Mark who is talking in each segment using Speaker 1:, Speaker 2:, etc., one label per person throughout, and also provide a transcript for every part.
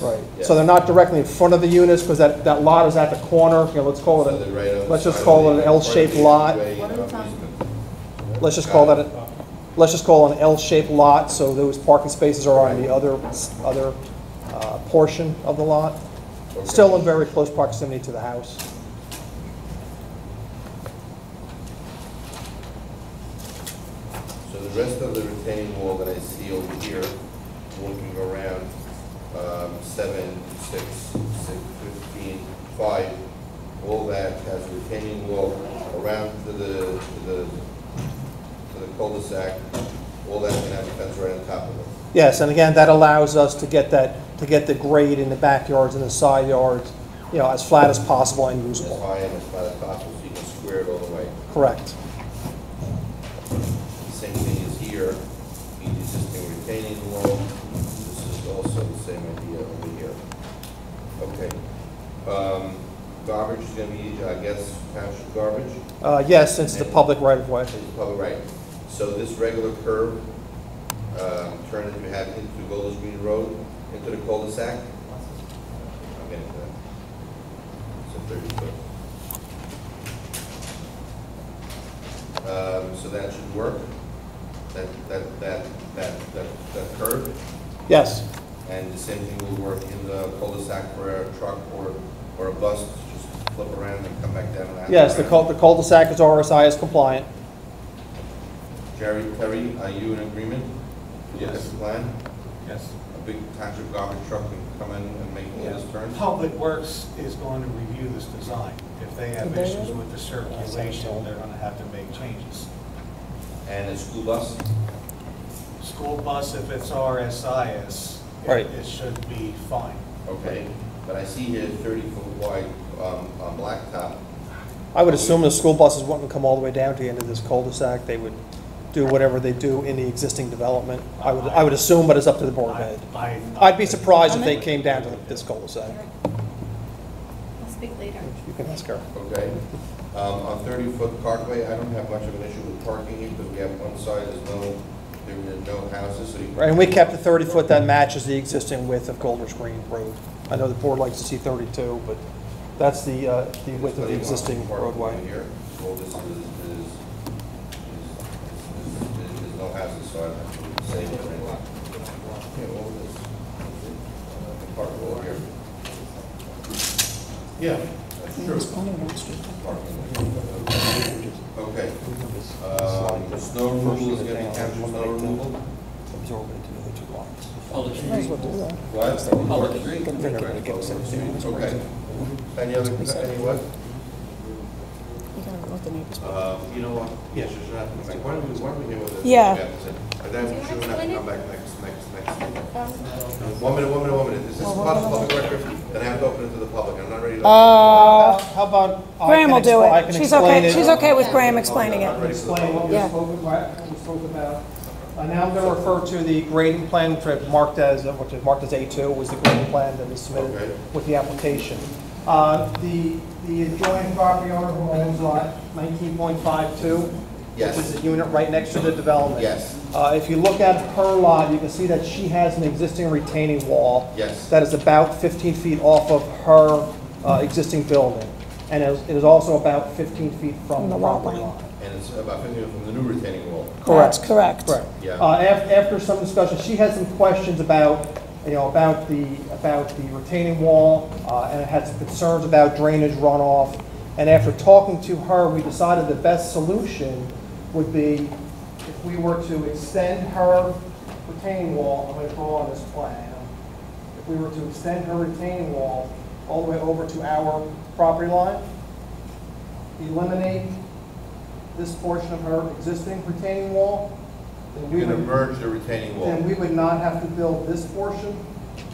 Speaker 1: Right, so
Speaker 2: Yeah.
Speaker 1: they're not directly in front of the units, because that, that lot is at the corner, you know, let's call
Speaker 2: So
Speaker 1: it,
Speaker 2: they're right
Speaker 1: a
Speaker 2: on
Speaker 1: let's
Speaker 2: the
Speaker 1: just
Speaker 2: side
Speaker 1: call
Speaker 2: of
Speaker 1: it an
Speaker 2: the
Speaker 1: L-shaped
Speaker 2: parking
Speaker 1: lot,
Speaker 2: way, um, you know,
Speaker 1: let's just call that, a- let's just call it an L-shaped lot, so those parking spaces are on the other, other uh, portion of the lot,
Speaker 2: Okay.
Speaker 1: still in very close proximity to the house.
Speaker 2: So the rest of the retaining wall that I see over here, looking around, um, seven, six, six, fifteen, five, all that has retaining wall around to the, to the, to the cul-de-sac, all that can have a fence right on top of it.
Speaker 1: Yes, and again, that allows us to get that, to get the grade in the backyards and the side yards, you know, as flat as possible and
Speaker 2: As
Speaker 1: usable,
Speaker 2: high and as flat as possible, so you can square it all the way.
Speaker 1: correct.
Speaker 2: Same thing is here, the existing retaining wall, this is also the same idea over here. Okay. Um, Garbage is gonna be, I guess, township garbage,
Speaker 1: Uh, Yes, since it's a public right-of-way,
Speaker 2: is public right. So this regular curve, um, turn that you have into Golders Green Road, into the cul-de-sac? I'm getting to that. So thirty foot. Um, So that should work, that, that, that, that, that that curve?
Speaker 1: yes.
Speaker 2: And the same thing will work in the cul-de-sac for a truck or, or a bus, to just flip around and come back down. and out
Speaker 1: Yes, the
Speaker 2: around.
Speaker 1: cul- the cul-de-sac is RSI is compliant.
Speaker 2: Jerry, Terry, are you in agreement? with
Speaker 3: Yes.
Speaker 2: this plan?
Speaker 3: Yes.
Speaker 2: A big township garbage truck can come in and make all those turns?
Speaker 4: Public Works is going to review this design. If they have issues with the circulation, they're going to have to make changes.
Speaker 2: And a school bus?
Speaker 4: School bus, if it's RSIS, it-
Speaker 1: Right.
Speaker 4: it should be fine.
Speaker 2: Okay, but I see here thirty foot wide, um, uh, blacktop.
Speaker 1: I would assume the school buses wouldn't come all the way down to the end of this cul-de-sac. They would do whatever they do in the existing development. I would, I would assume, but it's up to the board head.
Speaker 4: I- I-
Speaker 1: I'd be surprised if they came down to this cul-de-sac.
Speaker 5: I'll speak later.
Speaker 1: You can ask her.
Speaker 2: okay? Um, on thirty-foot parkway, I don't have much of an issue with parking here, because we have one side, there's no, there are no houses, so you.
Speaker 1: And we kept the 30-foot that matches the existing width of Golders Green Road. I know the board likes to see 32, but that's the, uh, the width of the existing
Speaker 2: Parking
Speaker 1: roadway.
Speaker 2: Here, all this is, is, is, is, is no houses, so I'm actually saving a lot. Yeah, all this, uh, the park wall here. Yeah, that's true. Parking lot. Okay, um, the snow removal is gonna be township snow removal?
Speaker 1: Absorb it into the other two lots.
Speaker 6: Public hearing.
Speaker 2: What?
Speaker 6: Public hearing.
Speaker 1: They're never gonna get us anything.
Speaker 2: Okay. Any other, any what?
Speaker 7: You gotta let the neighbors.
Speaker 2: Uh, You know what? Yes, you should have, like, why don't we, why don't we hear what the.
Speaker 7: Yeah.
Speaker 2: And then we should have to come back next, next, next. meeting. One minute, one minute, one minute. This is part of public record, then I have to open it to the public. I'm not ready to.
Speaker 1: Uh, How about? I
Speaker 7: Graham
Speaker 1: can
Speaker 7: will do
Speaker 1: expl- I can
Speaker 7: it. She's
Speaker 1: explain
Speaker 7: okay,
Speaker 1: it.
Speaker 7: she's okay with Graham explaining
Speaker 2: I'm not
Speaker 7: it.
Speaker 2: ready for the
Speaker 1: explain what we
Speaker 7: Yeah.
Speaker 1: spoke, what we spoke about. Uh, now I'm going to refer to the grading plan, which I've marked as, uh, which I've marked as A2, was the grading plan that was
Speaker 2: Okay.
Speaker 1: submitted with the application. Uh, the, the adjoining property owner who owns lot 19.52,
Speaker 2: Yes.
Speaker 1: which is the unit right next to the development.
Speaker 2: Yes.
Speaker 1: Uh, if you look at her lot, you can see that she has an existing retaining wall
Speaker 2: Yes.
Speaker 1: that is about 15 feet off of her uh, existing building. And it is- it is also about 15 feet from
Speaker 7: From
Speaker 1: the
Speaker 7: the lot
Speaker 1: property
Speaker 7: line.
Speaker 1: line.
Speaker 2: And it's about fifty from the new retaining wall.
Speaker 1: Correct.
Speaker 7: That's correct.
Speaker 1: Correct.
Speaker 2: Yeah.
Speaker 1: Uh, af- After some discussion, she had some questions about, you know, about the, about the retaining wall, uh, and had some concerns about drainage runoff. And after talking to her, we decided the best solution would be if we were to extend her retaining wall, I'm going to draw on this plan, if we were to extend her retaining wall all the way over to our property line, eliminate this portion of her existing retaining wall, then we
Speaker 2: You're gonna
Speaker 1: would
Speaker 2: merge the retaining
Speaker 1: then
Speaker 2: wall.
Speaker 1: we would not have to build this portion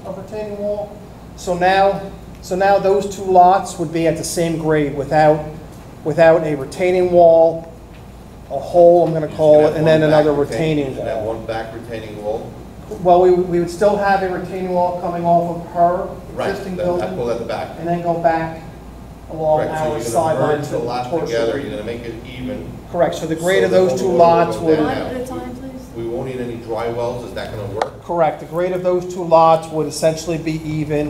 Speaker 1: of retaining wall. So now, so now those two lots would be at the same grade without, without a retaining wall, a hole, I'm gonna call it, and then another retaining
Speaker 2: And that
Speaker 1: wall.
Speaker 2: one back retaining wall.
Speaker 1: Well, we, we would still have a retaining wall coming off of her
Speaker 2: Right,
Speaker 1: existing
Speaker 2: that- I call
Speaker 1: building,
Speaker 2: that the back.
Speaker 1: and then go back along
Speaker 2: Correct, so
Speaker 1: our
Speaker 2: you're gonna
Speaker 1: sideline
Speaker 2: Merge
Speaker 1: to
Speaker 2: the lot
Speaker 1: towards the-
Speaker 2: together, you're gonna make it even.
Speaker 1: Correct, so the grade
Speaker 2: So
Speaker 1: of
Speaker 2: the
Speaker 1: those
Speaker 2: whole
Speaker 1: two
Speaker 2: road will
Speaker 1: lots
Speaker 2: go
Speaker 1: would,
Speaker 2: down.
Speaker 5: One at a time, please.
Speaker 2: We won't need any dry wells, is that gonna work?
Speaker 1: Correct. The grade of those two lots would essentially be even.